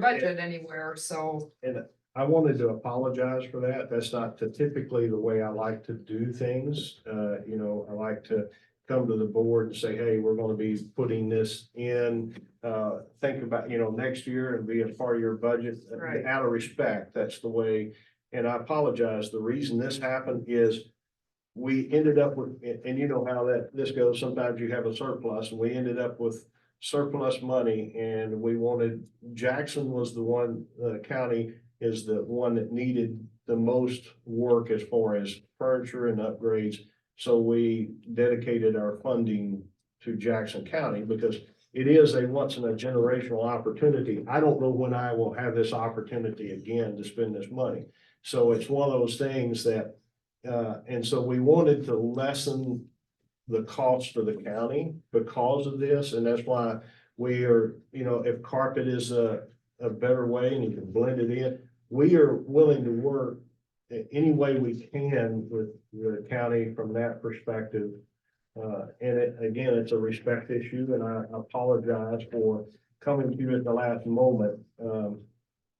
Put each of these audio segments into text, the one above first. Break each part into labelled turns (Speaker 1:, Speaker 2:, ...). Speaker 1: budget anywhere, so.
Speaker 2: I wanted to apologize for that. That's not the- typically the way I like to do things. Uh, you know, I like to come to the board and say, hey, we're gonna be putting this in. Uh, think about, you know, next year and be a part of your budget.
Speaker 1: Right.
Speaker 2: Out of respect, that's the way. And I apologize. The reason this happened is we ended up with, and- and you know how that, this goes. Sometimes you have a surplus. We ended up with surplus money and we wanted, Jackson was the one, uh, county is the one that needed the most work as far as furniture and upgrades. So we dedicated our funding to Jackson County because it is a once in a generational opportunity. I don't know when I will have this opportunity again to spend this money. So it's one of those things that, uh, and so we wanted to lessen the cost of the county because of this, and that's why we are, you know, if carpet is a, a better way and you can blend it in, we are willing to work in any way we can with the county from that perspective. Uh, and it, again, it's a respect issue and I apologize for coming to you at the last moment. Um,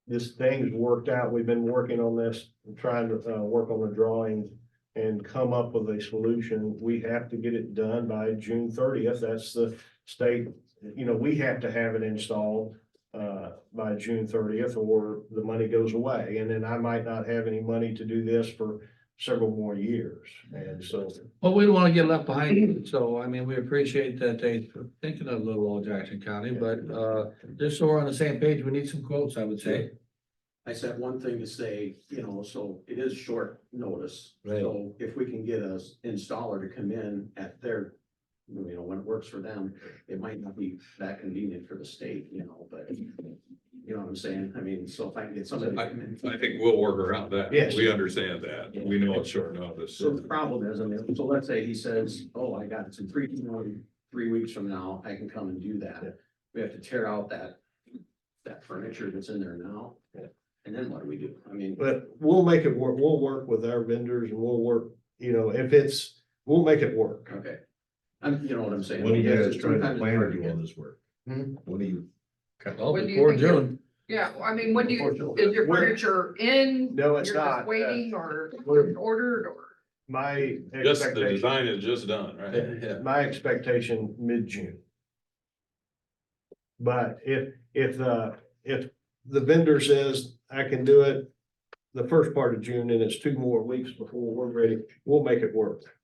Speaker 2: this thing's worked out. We've been working on this, and trying to, uh, work on the drawings and come up with a solution. We have to get it done by June thirtieth. That's the state, you know, we have to have it installed uh, by June thirtieth, or the money goes away, and then I might not have any money to do this for several more years, and so.
Speaker 3: Well, we don't want to get left behind, so I mean, we appreciate that they thinking of little old Jackson County, but uh, just so we're on the same page, we need some quotes, I would say.
Speaker 4: I said one thing to say, you know, so it is short notice.
Speaker 3: Right.
Speaker 4: So if we can get a installer to come in at their, you know, when it works for them, it might not be that convenient for the state, you know, but you know what I'm saying? I mean, so if I can get somebody to come in.
Speaker 5: I think we'll work around that.
Speaker 2: Yes.
Speaker 5: We understand that. We know it's short notice.
Speaker 4: So the problem is, I mean, so let's say he says, oh, I got it in three, you know, three weeks from now, I can come and do
Speaker 2: Yeah.
Speaker 4: that. We have to tear out that, that furniture that's in there now.
Speaker 2: Yeah.
Speaker 4: And then what do we do? I mean.
Speaker 2: But we'll make it work, we'll work with our vendors, and we'll work, you know, if it's, we'll make it work.
Speaker 4: Okay. I'm, you know what I'm saying?
Speaker 6: When are you
Speaker 4: Yes,
Speaker 6: guys
Speaker 4: it's
Speaker 6: trying to
Speaker 4: sometimes
Speaker 6: plan or do
Speaker 4: hard
Speaker 6: all
Speaker 4: to
Speaker 6: this work?
Speaker 2: Hmm.
Speaker 6: When are you?
Speaker 3: Well,
Speaker 1: When do you
Speaker 3: before
Speaker 1: think you-
Speaker 3: June,
Speaker 1: Yeah, well, I mean, when do you,
Speaker 4: Unfortunately.
Speaker 1: is your
Speaker 2: When-
Speaker 1: furniture in?
Speaker 2: No, it's
Speaker 1: You're just
Speaker 2: not. Uh,
Speaker 1: Waiting or
Speaker 2: we're-
Speaker 1: ordered or?
Speaker 2: My
Speaker 5: Just the
Speaker 2: expectation,
Speaker 5: design is just done, right?
Speaker 3: yeah,
Speaker 2: my expectation, mid-June. But if, if, uh, if the vendor says, I can do it the first part of June, and it's two more weeks before we're ready, we'll make it work.
Speaker 4: get-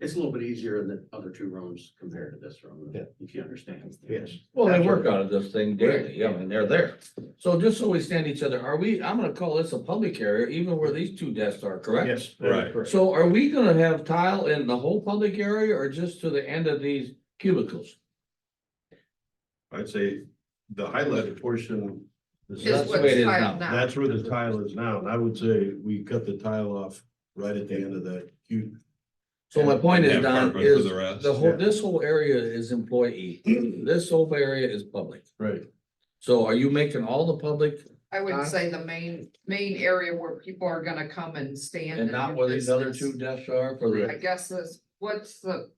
Speaker 4: It's a little bit easier in the other two rooms compared to this room,
Speaker 2: Yeah.
Speaker 4: if you understand.
Speaker 2: Yes.
Speaker 3: well, they work out of this thing daily, yeah, and they're there. So just so we stand each other, are we, I'm gonna call this a public area, even where these two desks are, correct?
Speaker 2: Yes. that is
Speaker 5: Right.
Speaker 2: correct.
Speaker 3: So are we gonna have tile in the whole public area or just to the end of these cubicles?
Speaker 6: I'd say the highlighted portion. is
Speaker 1: Is
Speaker 3: That's
Speaker 6: That's
Speaker 3: what- the way it
Speaker 1: what's
Speaker 3: is
Speaker 1: tiled
Speaker 3: now.
Speaker 1: now?
Speaker 6: that's where the tile is now, and I would say we cut the tile off right at the end of that cute.
Speaker 3: So my point is,
Speaker 5: Have
Speaker 3: Don,
Speaker 5: carpet for
Speaker 3: is
Speaker 5: the rest,
Speaker 3: the whole,
Speaker 6: yeah.
Speaker 3: this whole area is employee, this whole area is public.
Speaker 6: Right.
Speaker 3: So are you making all the public
Speaker 1: I would say the main, main area where people are gonna come and stand.
Speaker 3: and not
Speaker 1: do
Speaker 3: where these other
Speaker 1: business.
Speaker 3: two desks are for the?
Speaker 1: I guess is, what's the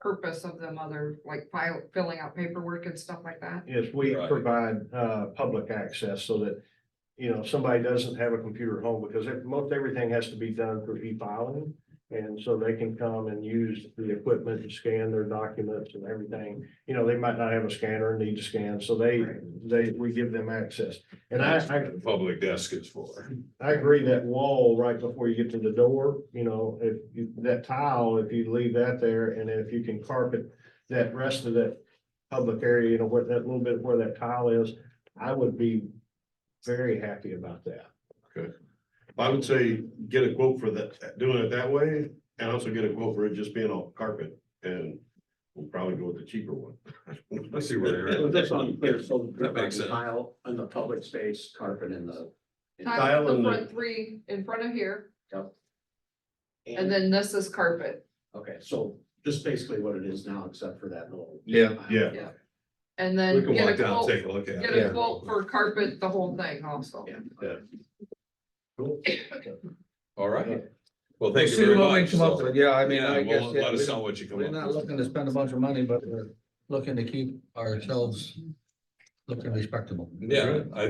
Speaker 1: purpose of them other, like file, filling out paperwork and stuff like that?
Speaker 2: Yes, we
Speaker 5: Right.
Speaker 2: provide uh public access so that, you know, somebody doesn't have a computer at home because it- most everything has to be done through e-filing. And so they can come and use the equipment to scan their documents and everything. You know, they might not have a scanner and need to scan, so they they, we give them access. And I I
Speaker 5: The Public desk is for.
Speaker 2: I agree that wall right before you get to the door, you know, if you, that tile, if you leave that there and if you can carpet that rest of that public area, you know, where that little bit where that tile is, I would be very happy about that.
Speaker 6: I would say get a quote for that, doing it that way, and also get a quote for it just being all carpet, and we'll probably go with the cheaper one.
Speaker 5: I see where you're
Speaker 4: But
Speaker 5: at.
Speaker 4: That's unclear, so.
Speaker 5: That makes sense.
Speaker 4: Tile in the public space, carpet in the. in-
Speaker 1: Tile, the
Speaker 6: and the-
Speaker 1: front three in front of here, and
Speaker 4: And,
Speaker 1: then this is carpet,
Speaker 4: okay, so just basically what it is now, except for that little.
Speaker 3: Yeah.
Speaker 6: Yeah.
Speaker 1: Yeah. and
Speaker 5: We
Speaker 1: then
Speaker 5: can
Speaker 1: get
Speaker 5: walk
Speaker 1: a
Speaker 5: down,
Speaker 1: quote,
Speaker 5: and take a look at
Speaker 1: get
Speaker 5: it.
Speaker 1: a quote for carpet, the whole thing also.
Speaker 4: Yeah.
Speaker 6: Cool.
Speaker 5: All right. Well,
Speaker 3: We'll
Speaker 5: thank you
Speaker 3: see
Speaker 5: very
Speaker 3: what we
Speaker 5: much.
Speaker 3: come up
Speaker 5: So,
Speaker 3: with. Yeah, I mean,
Speaker 5: yeah,
Speaker 3: I guess,
Speaker 5: well,
Speaker 3: yeah,
Speaker 5: Let us
Speaker 3: we-
Speaker 5: know what you come
Speaker 3: we're
Speaker 5: up
Speaker 3: not
Speaker 5: with.
Speaker 3: looking to spend a bunch of money, but we're looking to keep ourselves looking respectable.
Speaker 5: Yeah, I